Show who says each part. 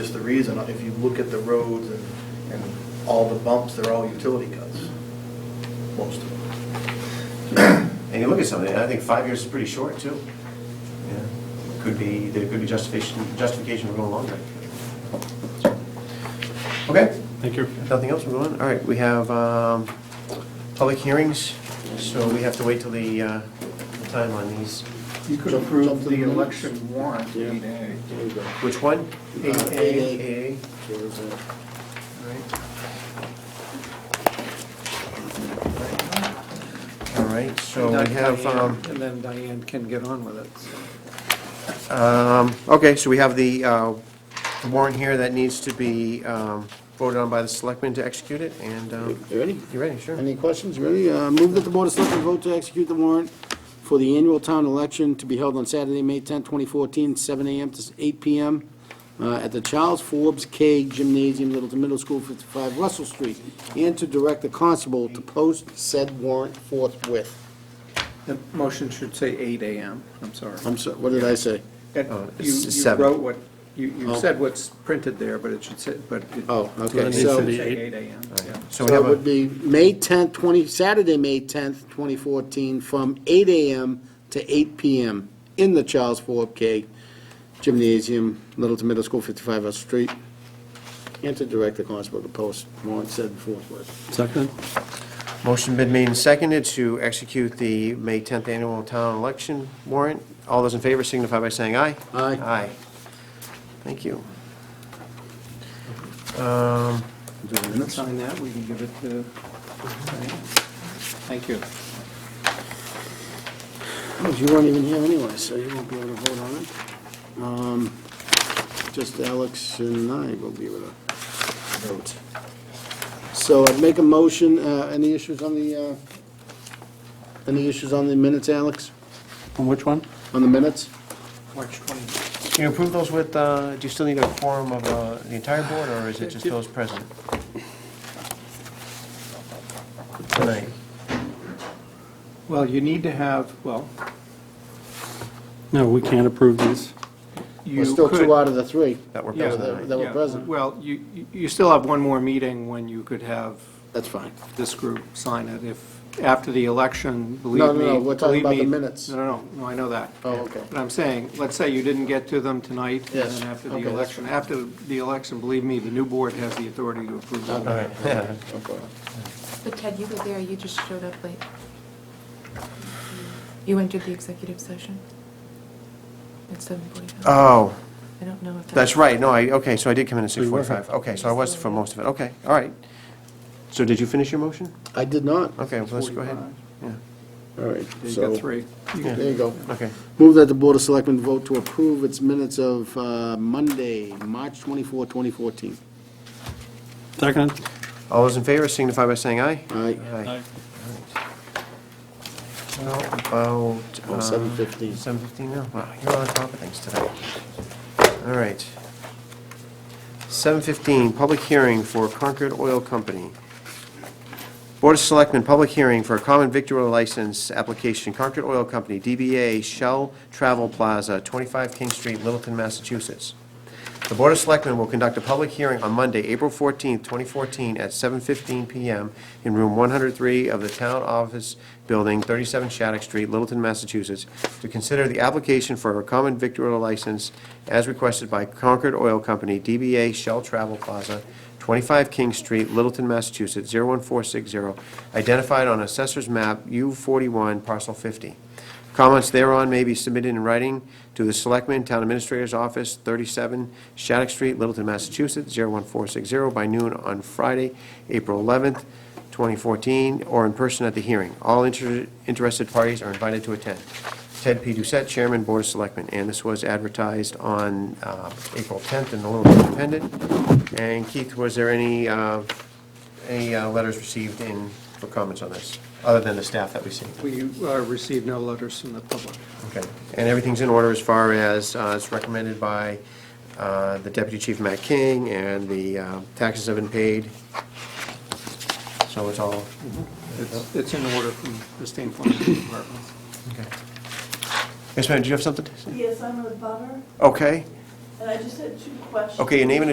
Speaker 1: Just the reason, if you look at the roads and, and all the bumps, they're all utility cuts, most of them.
Speaker 2: And you look at something, and I think five years is pretty short, too. Yeah, Could be, there could be justification, justification for going longer. Okay,
Speaker 3: Thank you.
Speaker 2: if nothing else, we're going, all right, we have um, public hearings, so we have to wait till the uh, time on these.
Speaker 1: You could approve the election warrant, eight A.
Speaker 4: There you go.
Speaker 2: Which one?
Speaker 4: Eight A.
Speaker 2: Eight
Speaker 4: There's a-
Speaker 2: A. All right, so we have, um,
Speaker 4: And then Diane can get on with it. so.
Speaker 2: um, okay, so we have the uh, warrant here that needs to be um, voted on by the selectmen to execute it, and, um,
Speaker 5: You ready?
Speaker 2: you ready, sure?
Speaker 5: Any questions? You Ready? Uh, Move that the Board of Selectmen vote to execute the warrant for the annual town election to be held on Saturday, May 10, 2014, 7 a.m. to 8 p.m. uh, at the Charles Forbes K Gymnasium, Littleton Middle School, 55 Russell Street, and to direct the constable to post said warrant forthwith.
Speaker 4: The motion should say eight AM, I'm sorry.
Speaker 5: I'm sorry, what did I say?
Speaker 4: And
Speaker 2: Oh, it's
Speaker 4: You, you
Speaker 2: seven.
Speaker 4: wrote what, you, you
Speaker 5: uh, Oh.
Speaker 4: said what's printed there, but it should say, but it
Speaker 5: Oh, okay,
Speaker 3: It needs to
Speaker 5: so...
Speaker 4: should
Speaker 3: be
Speaker 4: say
Speaker 3: eight.
Speaker 4: eight AM, yeah.
Speaker 2: So
Speaker 5: So
Speaker 2: we have
Speaker 5: it
Speaker 2: a,
Speaker 5: would be May 10th, 20, Saturday, May 10th, 2014, from 8 AM to 8 PM in the Charles Ford K Gymnasium, Littleton Middle School, 55 Russell Street. And to direct the constable to post warrant said forthwith.
Speaker 3: Second?
Speaker 2: motion been made and seconded to execute the May 10th annual town election warrant. All those in favor signify by saying aye.
Speaker 5: Aye.
Speaker 2: Aye. Thank you. Um,
Speaker 4: Sign that, we can give it to Diane. uh, Thank you.
Speaker 5: Oh, You weren't even here anyway, so you won't be able to vote on it. Um, Just Alex and I will be able to vote. So I'd make a motion, uh, any issues on the, uh, any issues on the minutes, Alex?
Speaker 3: On which one?
Speaker 5: On the minutes?
Speaker 4: March twenty.
Speaker 2: Can you approve those with, uh, do you still need a quorum of uh, the entire board, or is it just those present? Tonight.
Speaker 4: Well, you need to have, well,
Speaker 3: No, we can't approve these.
Speaker 4: you
Speaker 5: We're still
Speaker 4: could-
Speaker 5: two out of the three.
Speaker 2: That were
Speaker 4: Yeah,
Speaker 2: present
Speaker 5: that-
Speaker 2: tonight.
Speaker 5: that were
Speaker 4: yeah,
Speaker 5: present.
Speaker 4: Well, you, you- you still have one more meeting when you could have
Speaker 5: That's fine.
Speaker 4: this group sign it if, after the election, believe me.
Speaker 5: No, no, no, we're talking
Speaker 4: believe
Speaker 5: about the
Speaker 4: me-
Speaker 5: minutes.
Speaker 4: No, no, no, I know that.
Speaker 5: Oh, okay.
Speaker 4: But I'm saying, let's say you didn't get to them tonight.
Speaker 5: Yes,
Speaker 4: And then after
Speaker 5: okay,
Speaker 4: the
Speaker 5: that's
Speaker 4: election, after the election, believe me, the new board has the authority to approve
Speaker 2: All
Speaker 4: them.
Speaker 2: right, yeah.
Speaker 6: But Ted, you were there, you just showed up late. You entered the executive session at seven forty-five.
Speaker 2: Oh,
Speaker 6: I don't know if that.
Speaker 2: that's right, no, I, okay, so I did come in at
Speaker 3: So you were here.
Speaker 2: 6:45. Okay, so I was for most of it, okay, all right. So did you finish your motion?
Speaker 5: I did not.
Speaker 2: Okay, well, let's go ahead.
Speaker 4: 45.
Speaker 2: Yeah,
Speaker 5: All right,
Speaker 4: You
Speaker 5: so,
Speaker 4: got three. You
Speaker 2: Yeah.
Speaker 4: can-
Speaker 5: there you go.
Speaker 2: okay.
Speaker 5: Move that the Board of Selectmen vote to approve its minutes of uh, Monday, March 24, 2014.
Speaker 3: Second?
Speaker 2: All those in favor signify by saying aye.
Speaker 5: Aye.
Speaker 2: Aye. Well, about...
Speaker 5: Oh,
Speaker 2: uh,
Speaker 5: 7:15.
Speaker 2: 7:15 now, wow, you're on top of things today. All right. 7:15, public hearing for Concord Oil Company. Board of Selectmen, public hearing for a common victual license application, Concord Oil Company, DBA Shell Travel Plaza, 25 King Street, Littleton, Massachusetts. The Board of Selectmen will conduct a public hearing on Monday, April 14th, 2014, at 7:15 PM in Room 103 of the Town Office Building, 37 Shattuck Street, Littleton, Massachusetts, to consider the application for a common victualer license as requested by Concord Oil Company, DBA Shell Travel Plaza, 25 King Street, Littleton, Massachusetts, 01460, identified on Assessor's Map U41, Parcel 50. Comments thereon may be submitted in writing to the Selectmen, Town Administrator's Office, 37 Shattuck Street, Littleton, Massachusetts, 01460, by noon on Friday, April 11th, 2014, or in person at the hearing. All inter- interested parties are invited to attend. Ted P. Doucette, Chairman, Board of Selectmen, and this was advertised on uh, April 10th in the Littleton Independent. And Keith, was there any, uh, any uh, letters received in, for comments on this, other than the staff that we see?
Speaker 4: We uh, received no letters from the public.
Speaker 2: Okay, and everything's in order as far as uh, it's recommended by uh, the Deputy Chief Matt King, and the uh, taxes have been paid, so it's all,
Speaker 4: It's, it's in order from the State Farm Department.
Speaker 2: okay. Yes, ma'am, do you have something? to say?
Speaker 7: Yes, I'm a butter,
Speaker 2: Okay,
Speaker 7: and I just had two questions.
Speaker 2: okay, your name and